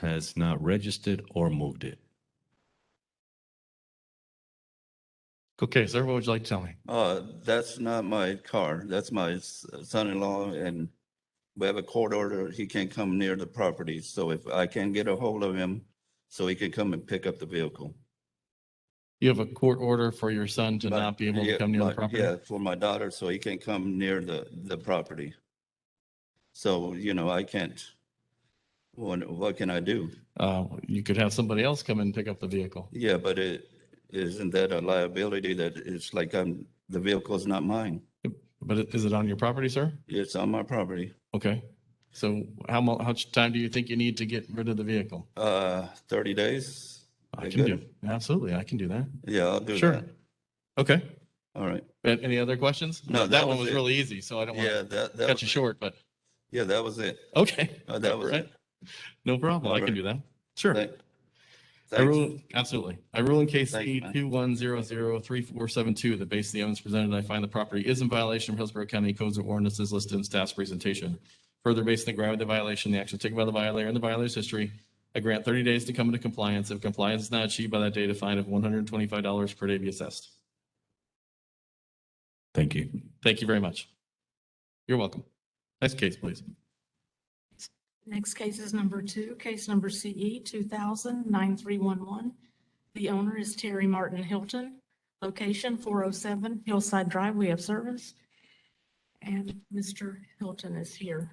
has not registered or moved it. Okay, sir, what would you like to tell me? Uh, that's not my car. That's my s- son-in-law and we have a court order. He can't come near the property. So if I can get a hold of him, so he can come and pick up the vehicle. You have a court order for your son to But- not be able to yeah, come near the but- property? Yeah, for my daughter, so he can't come near the, the property. So, you know, I can't, what, what can I do? Uh, you could have somebody else come and pick up the vehicle. Yeah, but it, isn't that a liability that it's like I'm, the vehicle's not mine? But i- is it on your property, sir? It's on my property. Okay. So how mu, how much time do you think you need to get rid of the vehicle? Uh, thirty days? I They can do, good? absolutely, I can do that. Yeah, I'll do Sure. that. Okay. All right. A- Any other questions? No, That that one was was it. really easy, so I don't want Yeah, to that, that, cut you was- short, but, yeah, that was it. okay. Uh, that was Right. it. No problem. I can Alright. do that. Sure. Thank- I thanks. rule, absolutely. I rule in case Thanks, C man. two one zero zero three four seven two, the base of the evidence presented, I find the property is in violation of Hillsborough County Codes of Ordinances listed in staff's presentation. Further, based on the gravity of the violation, the action taken by the violator and the violator's history, I grant thirty days to come into compliance. If compliance is not achieved by that date, a fine of one hundred and twenty-five dollars per day be assessed. Thank you. Thank you very much. You're welcome. Next case, please. Next case is number two, case number E, CE 2000-9311. The owner is Terry Martin Hilton, location 407 Hillside Drive. We have service. And Mr. Hilton is here.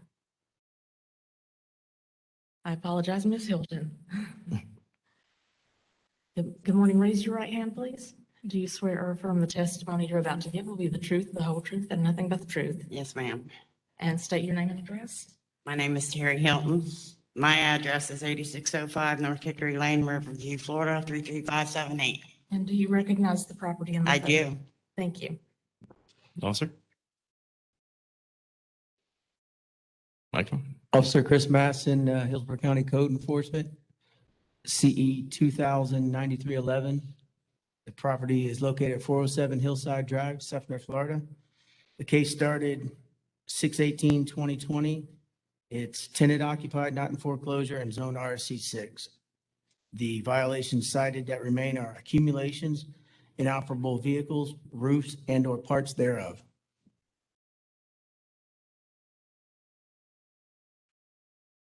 I apologize, Ms. Hilton. Good good morning. Raise your right hand, please. Do you swear or affirm the testimony you're about to give will be the truth, the whole truth, and nothing but the truth? Yes, ma'am. And state your name and address. My name is Terry Hilton. My address is eighty-six oh five North Hickory Lane, Riverview, Florida, three three five seven eight. And do you recognize the property in the? I photo? do. Thank you. Officer? Michael? Officer Chris Matson, uh, Hillsborough County Code Enforcement, E CE 209311. The property is located at 407 Hillside Drive, Sefner, Florida. The case started 6/18/2020. It's tenant occupied, not in foreclosure, and zone RC6. The violations cited that remain are accumulations, inoperable vehicles, roofs, and/or parts thereof.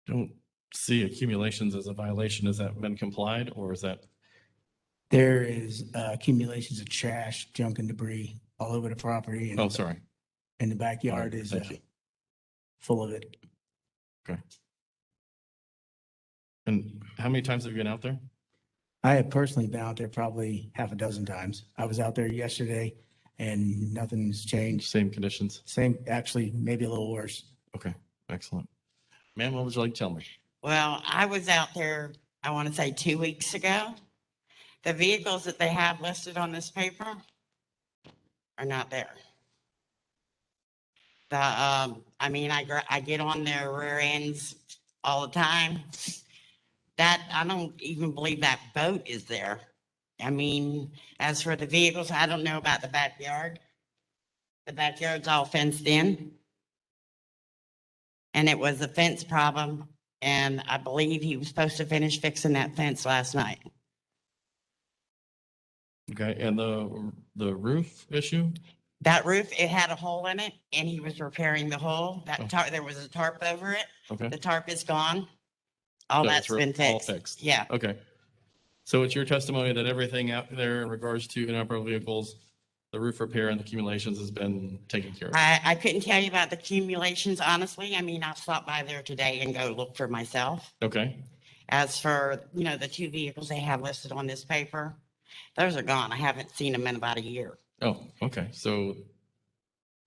don't see accumulations as a violation. Has that been complied or is that, There is uh, accumulations of trash, junk and debris all over the property. and- oh, sorry. And the backyard is Thank uh, you. full of it. And how many times have you been out there? I have personally been out there probably half a dozen times. I was out there yesterday and nothing's changed. Same conditions? Same, actually, maybe a little worse. Okay, excellent. Ma'am, what would you like to tell me? Well, I was out there, I want to say two weeks ago. The vehicles that they have listed on this paper are not there. The, um, I mean, I, gr- I get on their rear ends all the time. That, I don't even believe that boat is there. I mean, as for the vehicles, I don't know about the backyard. The backyard's all fenced in. And it was a fence problem and I believe he was supposed to finish fixing that fence last night. Okay, and the, the roof issue? That roof, it had a hole in it and he was repairing the hole. Oh. That tarp, there was a tarp over it. Okay, The tarp is gone. All So that's it's re- been all fixed. fixed. Yeah, okay. So it's your testimony that everything out there in regards to inoperable vehicles, the roof repair and accumulations has been taken care of? I, I couldn't tell you about the accumulations, honestly. I mean, I'll stop by there today and go look for myself. Okay, As for, you know, the two vehicles they have listed on this paper, those are gone. I haven't seen them in about a year. oh, okay, so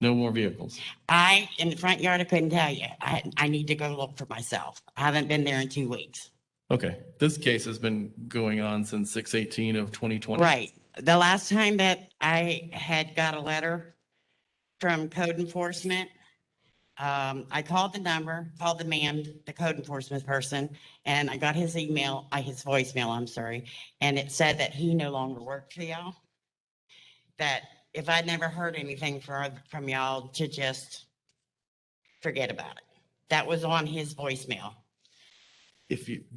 no more vehicles? I, in the front yard, I couldn't tell you. I, I need to go look for myself. I haven't been there in two weeks. Okay, this case has been going on since six eighteen of twenty twenty. Right. The last time that I had got a letter from code enforcement, um, I called the number, called the man, the code enforcement person, and I got his email, uh, his voicemail, I'm sorry. And it said that he no longer worked for y'all. That if I'd never heard anything from, from y'all to just forget about it. That was on his voicemail. If you,